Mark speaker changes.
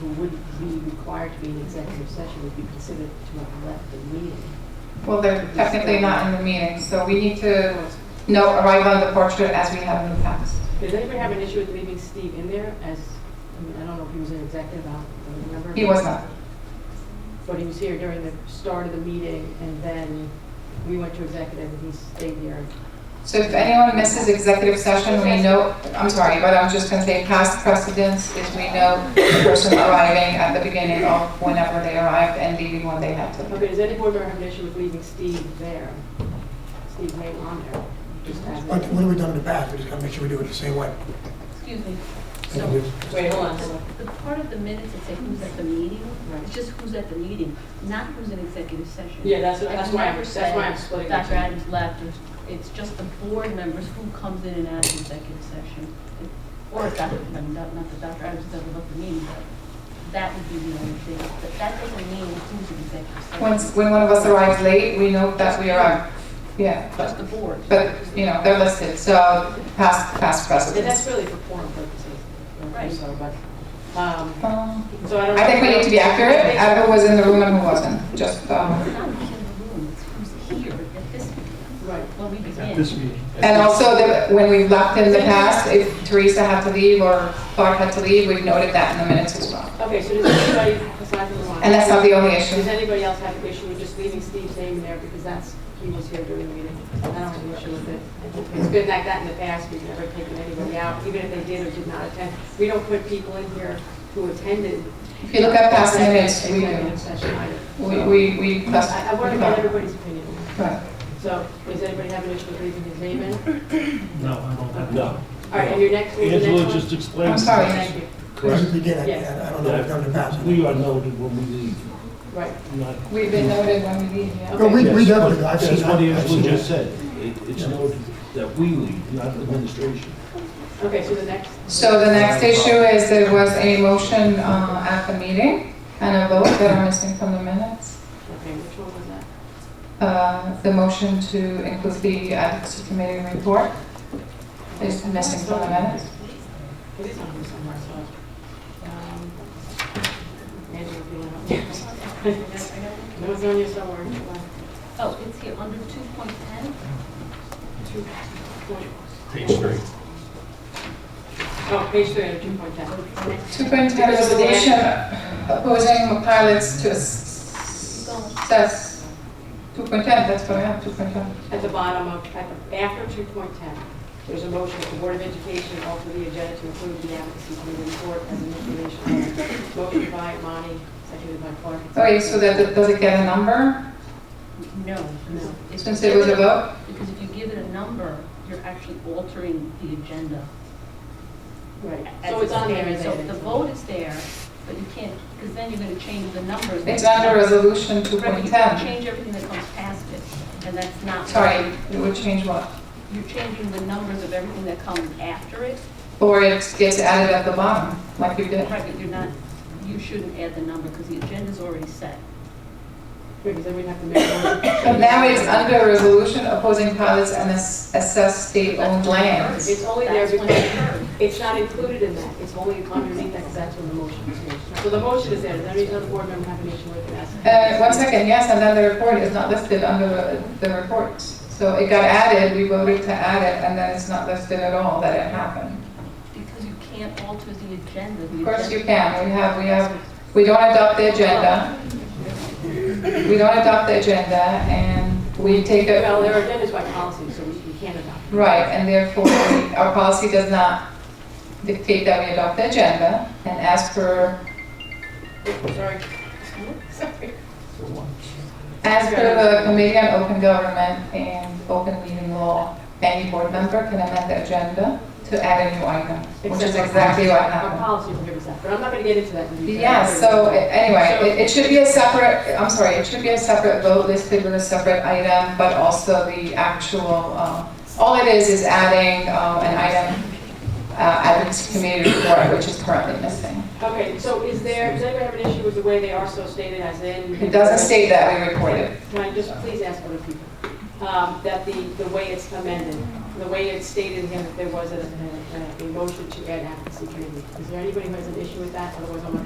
Speaker 1: who wouldn't be required to be in executive session would be considered to have left the meeting.
Speaker 2: Well, they're technically not in the meeting, so we need to note arrival on the portrait as we have in the past.
Speaker 1: Did anybody have an issue with leaving Steve in there as, I mean, I don't know if he was an executive, I don't remember.
Speaker 2: He was not.
Speaker 1: But he was here during the start of the meeting and then we went to executive and he stayed here.
Speaker 2: So if anyone misses executive session, we know, I'm sorry, but I was just gonna say past precedence is we know the person arriving at the beginning of whenever they arrived and leaving when they had to. leave.
Speaker 1: Okay, does any board member have an issue with leaving Steve there? Steve may on there, just as.
Speaker 3: Like, what have we done in the past? We just gotta make sure we do it the same way.
Speaker 4: Excuse me.
Speaker 3: And
Speaker 4: So,
Speaker 3: we-
Speaker 1: Wait, hold on.
Speaker 4: the part of the minutes that say who's at the meeting, it's just who's at the meeting, not who's in executive session.
Speaker 1: Yeah, that's what-
Speaker 4: I've
Speaker 1: that's why I'm-
Speaker 4: never
Speaker 1: that's why I'm
Speaker 4: said
Speaker 1: splitting the two.
Speaker 4: Dr. Adams left, or- it's just the board members who comes in and out of executive session. Or if Dr., I mean, not not that Dr. Adams doesn't love the meeting, but that would be the only thing. But that doesn't mean who's in executive session.
Speaker 2: When, when one of us arrives late, we know that we are, yeah, but,
Speaker 4: Just the board.
Speaker 2: but, you know, they're listed, so past, past
Speaker 1: And that's
Speaker 2: precedence.
Speaker 1: really for forum purposes.
Speaker 4: Right.
Speaker 1: So, but, um,
Speaker 2: Um,
Speaker 1: so I don't.
Speaker 2: I think we need to be accurate, at who was in the room and who wasn't, just, um,
Speaker 4: It's not who's in the room, it's who's here at this,
Speaker 1: Right.
Speaker 4: when we begin.
Speaker 5: at this meeting.
Speaker 2: And also, that when we've left in the past, if Teresa had to leave or Clark had to leave, we've noted that in the minutes as well.
Speaker 1: Okay, so does anybody, aside from Ron?
Speaker 2: And that's not the only
Speaker 1: Does
Speaker 2: issue.
Speaker 1: anybody else have an issue with just leaving Steve's name in there because that's, he was here during the meeting? I don't have an issue with it. It's been like that in the past, we've never taken anybody out, even if they did or did not attend. We don't put people in here who attended.
Speaker 2: If you look at past minutes, we
Speaker 1: Executive
Speaker 2: do.
Speaker 1: session item.
Speaker 2: We, we, we. that's-
Speaker 1: I, I want to get everybody's opinion.
Speaker 2: Right.
Speaker 1: So, does anybody have an issue with leaving his name in? All
Speaker 5: No, I don't have.
Speaker 6: No.
Speaker 1: right, and your next, your next one?
Speaker 5: Angela just explained.
Speaker 2: I'm sorry.
Speaker 1: Thank you.
Speaker 3: This is
Speaker 6: Correct.
Speaker 3: the beginning,
Speaker 1: Yes.
Speaker 3: I don't know what we've done in the past.
Speaker 6: We are noted when we leave,
Speaker 1: Right.
Speaker 6: not.
Speaker 2: We've been noted when we leave, yeah.
Speaker 3: No, we, we
Speaker 6: Yes,
Speaker 3: definitely,
Speaker 6: but
Speaker 3: I've
Speaker 6: That's
Speaker 3: seen,
Speaker 6: what
Speaker 3: I've
Speaker 6: Angela
Speaker 3: seen
Speaker 6: just
Speaker 3: it.
Speaker 6: said. It- It's noted that we leave, not the administration.
Speaker 1: Okay, so the next.
Speaker 2: So the next issue is there was a motion, uh, at the meeting and a vote that are missing from the minutes.
Speaker 1: Okay, which one was that?
Speaker 2: Uh, the motion to include the advocacy committee report is missing from the minutes.
Speaker 1: It is on here somewhere, so. um, Angela, if you want to. No, it's on here somewhere.
Speaker 4: Oh, it's here, under 2.10?
Speaker 1: Two point-
Speaker 5: Page three.
Speaker 1: Oh, page three, two point ten.
Speaker 2: Superintendent
Speaker 1: Because of the
Speaker 2: resolution opposing pilots to assess 2.10, that's what I have, 2.10.
Speaker 1: At the bottom of, at the, after two point ten, there's a motion that the Board of Education alter the agenda to include the advocacy committee report as an information. item. Motion by Monty, seconded by Clark.
Speaker 2: Okay, Oh, so that, does it get a number
Speaker 4: No.
Speaker 1: No.
Speaker 4: It's-
Speaker 2: since it was a vote?
Speaker 4: Because if you give it a number, you're actually altering the agenda.
Speaker 1: Right,
Speaker 4: as
Speaker 1: so it's on there,
Speaker 4: there.
Speaker 1: is
Speaker 4: So the vote is there, but you can't, because then you're going to change the numbers.
Speaker 2: It's under resolution
Speaker 4: Right, you can
Speaker 2: 2.10.
Speaker 4: change everything that comes past it, and that's not.
Speaker 2: Sorry, it would change what?
Speaker 4: You're changing the numbers of everything that comes after it.
Speaker 2: Or it gets added at the bottom, like you did.
Speaker 4: Right, but you're not, you shouldn't add the number because the agenda's already set.
Speaker 1: Because then we'd have to make. a motion.
Speaker 2: But now it's under resolution opposing pilots and ass- assess state-owned lands.
Speaker 1: It's only there
Speaker 4: That's when
Speaker 1: because-
Speaker 4: it occurred.
Speaker 1: It's not included in that, it's only underneath that, because that's when the motion is made. So the motion is there, does any other board member have an issue with it?
Speaker 2: Uh, one second, yes, and then the report is not listed under the- the reports. So it got added, we voted to add it, and then it's not listed at all that it happened.
Speaker 4: Because you can't alter the agenda. The
Speaker 2: Of course
Speaker 4: agenda-
Speaker 2: you can, we have, we have, we don't adopt the agenda. We don't adopt the agenda, and we take it,
Speaker 1: Well, there are agendas by policy, so we we can't adopt.
Speaker 2: right, and therefore, we- our policy does not dictate that we adopt the agenda, and as per,
Speaker 1: it. Sorry. Sorry.
Speaker 2: as per the Committee on Open Government and Open Meeting Law, any board member can amend the agenda to add a new item, which is
Speaker 1: Except our
Speaker 2: exactly what
Speaker 1: policy- Our
Speaker 2: happened.
Speaker 1: policy forgives that, but I'm not going to get into that. in detail.
Speaker 2: Yeah, so a- anyway, it- it should be a separate, I'm sorry, it should be a separate vote listed with a separate item, but also the actual, um, all it is, is adding um, an item, uh, advocacy committee report, which is currently missing.
Speaker 1: Okay, so is there, does anybody have an issue with the way they are so stated as in?
Speaker 2: It doesn't state that we reported.
Speaker 1: Can I just please ask other people, um, that the, the way it's amended, the way it's stated here, that there was a, a, a motion to add advocacy committee. Is there anybody who has an issue with that? Otherwise, I'm going to